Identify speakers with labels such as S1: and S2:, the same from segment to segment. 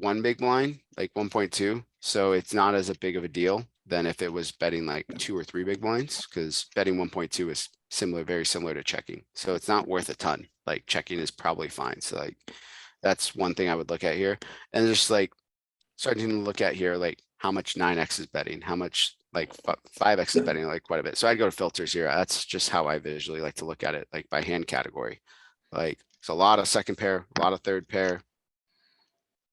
S1: one big blind, like one point two, so it's not as a big of a deal than if it was betting like two or three big blinds, because betting one point two is similar, very similar to checking. So it's not worth a ton. Like checking is probably fine. So like that's one thing I would look at here. And just like starting to look at here, like how much nine X is betting, how much like five X is betting like quite a bit. So I'd go to filters here. That's just how I visually like to look at it, like by hand category. Like it's a lot of second pair, a lot of third pair.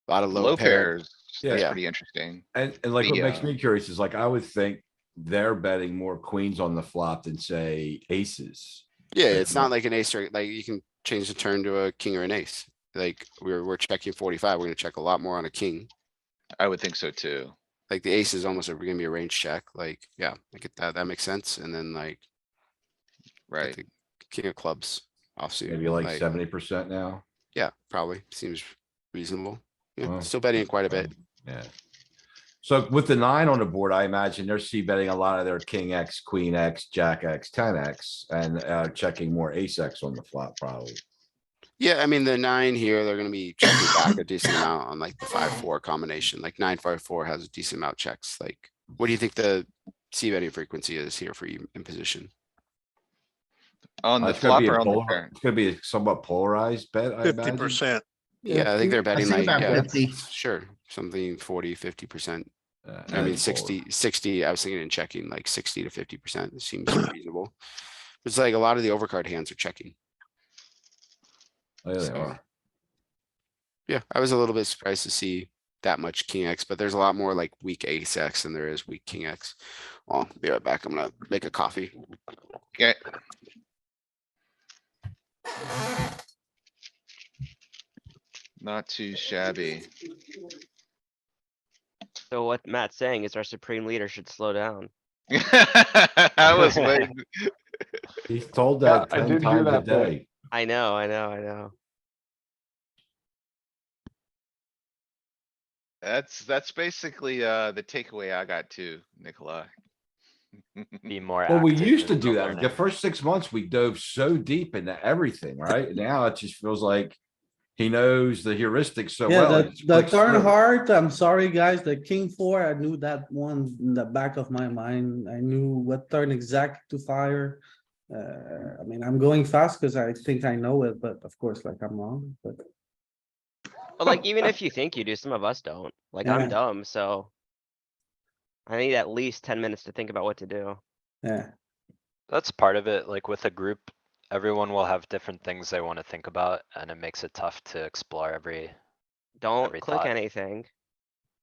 S1: a Lot of
S2: Low
S1: low pair.
S2: pairs,
S3: Yeah.
S2: that's
S1: Yeah.
S2: pretty interesting.
S3: And, and like what
S2: The,
S3: makes
S2: uh,
S3: me curious is like, I would think they're betting more queens on the flop than say aces.
S1: Yeah, it's not like an ace or like you can change the turn to a king or an ace. Like we're, we're checking forty-five, we're gonna check a lot more on a king.
S2: I would think so too.
S1: Like the ace is almost a- gonna be a range check, like, yeah, I get that, that makes sense. And then like get
S2: Right,
S1: the King of clubs offsuit.
S3: Maybe like
S1: like-
S3: seventy percent now.
S1: Yeah, probably seems reasonable. Yeah,
S3: Wow.
S1: Still betting quite a bit.
S3: Yeah. So with the nine on the board, I imagine they're c betting a lot of their king X, queen X, jack X, ten X and uh checking more ace X on the flop probably.
S1: Yeah, I mean, the nine here, they're gonna be checking back a decent amount on like the five, four combination, like nine, five, four has a decent amount checks, like. What do you think the C betting frequency is here for you in position?
S2: on
S3: Uh,
S2: the
S3: it's gonna
S2: flop
S3: be a
S2: or on the
S3: polar-
S2: turn.
S3: It's gonna be a somewhat polarized bet, I
S4: fifty
S3: imagine.
S4: percent.
S1: Yeah, I think they're betting
S5: think
S1: like,
S5: about
S1: yeah,
S5: 50.
S1: sure, something forty, fifty percent.
S3: Uh,
S1: I mean,
S3: polar.
S1: 60, 60, I was thinking in checking, like sixty to fifty percent seems reasonable. It's like a lot of the overcard hands are checking.
S3: Oh, Yeah, they
S1: so-
S3: are.
S1: Yeah, I was a little bit surprised to see that much king X, but there's a lot more like weak ace X than there is weak king X. Well, be right back. I'm gonna make a coffee.
S2: Okay, not too shabby.
S6: So what Matt's saying is our supreme leader should slow down.
S2: I was waiting.
S3: He's told
S7: Yeah,
S3: that
S7: I
S3: ten
S7: did hear
S3: times a
S7: that bet.
S3: day.
S6: I know, I know, I know.
S2: That's, that's basically, uh, the takeaway I got too, Nicola.
S8: Be more.
S3: Well, we
S8: active
S3: used to
S8: in
S3: do that.
S8: awareness.
S3: The first six months, we dove so deep into everything, right? Now it just feels like he knows the heuristics so
S5: Yeah,
S3: well. it
S5: the,
S3: just
S5: the
S3: clicks
S5: turn
S3: through.
S5: heart, I'm sorry, guys, the king four, I knew that one in the back of my mind. I knew what turn exact to fire. Uh, I mean, I'm going fast because I think I know it, but of course, like I'm wrong, but
S6: But like, even if you think you do, some of us don't. Like,
S5: Yeah.
S6: I'm dumb, so. I need at least ten minutes to think about what to do.
S5: yeah.
S8: That's part of it, like with a group, everyone will have different things they wanna think about, and it makes it tough to explore every.
S6: Don't
S8: Every
S6: click
S8: thought.
S6: anything.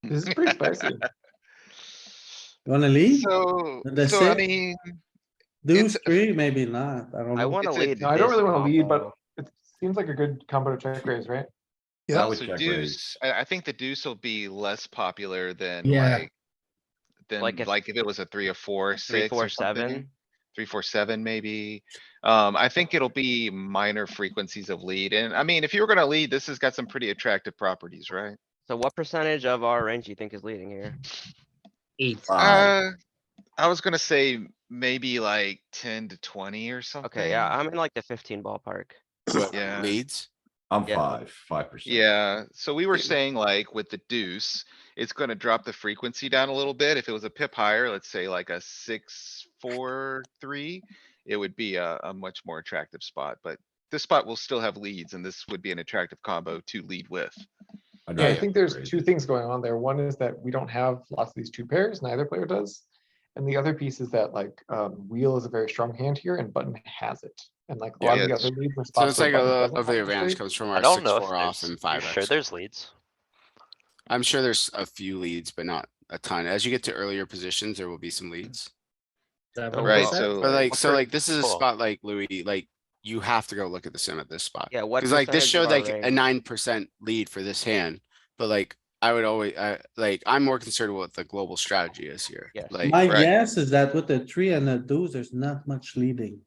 S7: This is pretty spicy.
S5: You wanna leave?
S2: So,
S5: The
S2: so I
S5: six-
S2: mean,
S5: Deuce
S2: it's-
S5: three, maybe not. I don't
S6: I
S5: know.
S6: wanna
S2: a-
S6: lead.
S7: No, I don't
S6: this
S7: really wanna lead, but-
S6: combo.
S7: It seems like a good combo to check raise, right?
S3: I
S4: Yeah.
S3: would
S2: so
S3: check
S2: deuce,
S3: raise.
S2: I, I think the deuce will be less popular than
S5: Yeah.
S2: like. Than
S6: Like if-
S2: like if it was a three or four,
S6: Three,
S2: six
S6: four,
S2: or something.
S6: seven.
S2: three, four, seven, maybe. Um, I think it'll be minor frequencies of lead, and I mean, if you were gonna lead, this has got some pretty attractive properties, right?
S6: So what percentage of our range do you think is leading here?
S5: Eight.
S6: Um
S3: Wow.
S2: Uh, I was gonna say maybe like ten to twenty or something.
S6: Okay, yeah, I'm in like the fifteen ballpark.
S1: What
S2: Yeah.
S1: leads?
S3: I'm
S6: yeah.
S3: five, five percent.
S2: Yeah, so we were saying like with the deuce, it's gonna drop the frequency down a little bit. If it was a pip higher, let's say like a six, four, three. It would be a, a much more attractive spot, but this spot will still have leads and this would be an attractive combo to lead with.
S7: Yeah, I think there's two things going on there. One is that we don't have lots of these two pairs, neither player does. And the other piece is that like, um, wheel is a very strong hand here and button has it. And like a lot of the
S2: Yeah, it's-
S7: other leads. were
S1: So
S7: spots
S1: it's
S7: where
S1: like a lot
S7: button doesn't
S1: of the
S7: participate.
S1: advantage comes from
S8: I
S1: our
S8: don't
S1: six,
S8: know
S1: four off
S8: if
S1: and
S8: there's, you
S1: five
S8: sure
S1: X.
S8: there's leads?
S1: I'm sure there's a few leads, but not a ton. As you get to earlier positions, there will be some leads.
S2: Right, so.
S1: But like, so
S8: Okay,
S1: like, this is a
S8: cool.
S1: spot like Louis, like, you have to go look at the sim at this spot.
S6: Yeah, what?
S1: Cause like this
S6: percentage of
S1: showed
S6: our
S1: like a
S6: range-
S1: nine percent lead for this hand, but like, I would always, I, like, I'm more concerned with what the global strategy is here.
S6: Yes.
S1: Like,
S5: My
S2: Right.
S5: guess is that with the three and the deuce, there's not much leading.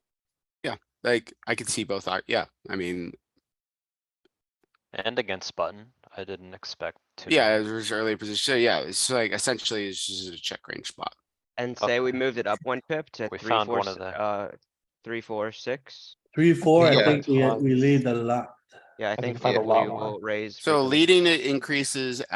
S1: like, I could see both, ar- yeah, I mean,
S8: And against button, I didn't expect to.
S1: yeah, it was earlier position, so yeah, it's like essentially it's just a check range spot.
S6: And say we moved it up one pip to
S8: We
S6: three,
S8: found
S6: four,
S8: one of
S6: s-
S8: the-
S6: uh, three, four, six.
S5: Three, four, I
S2: Yeah.
S5: think we, we lead a lot.
S6: Yeah, I
S7: think
S6: think
S7: find
S6: we
S2: a
S6: we
S7: lot more.
S6: will raise.
S1: So
S6: frequency.
S1: leading it increases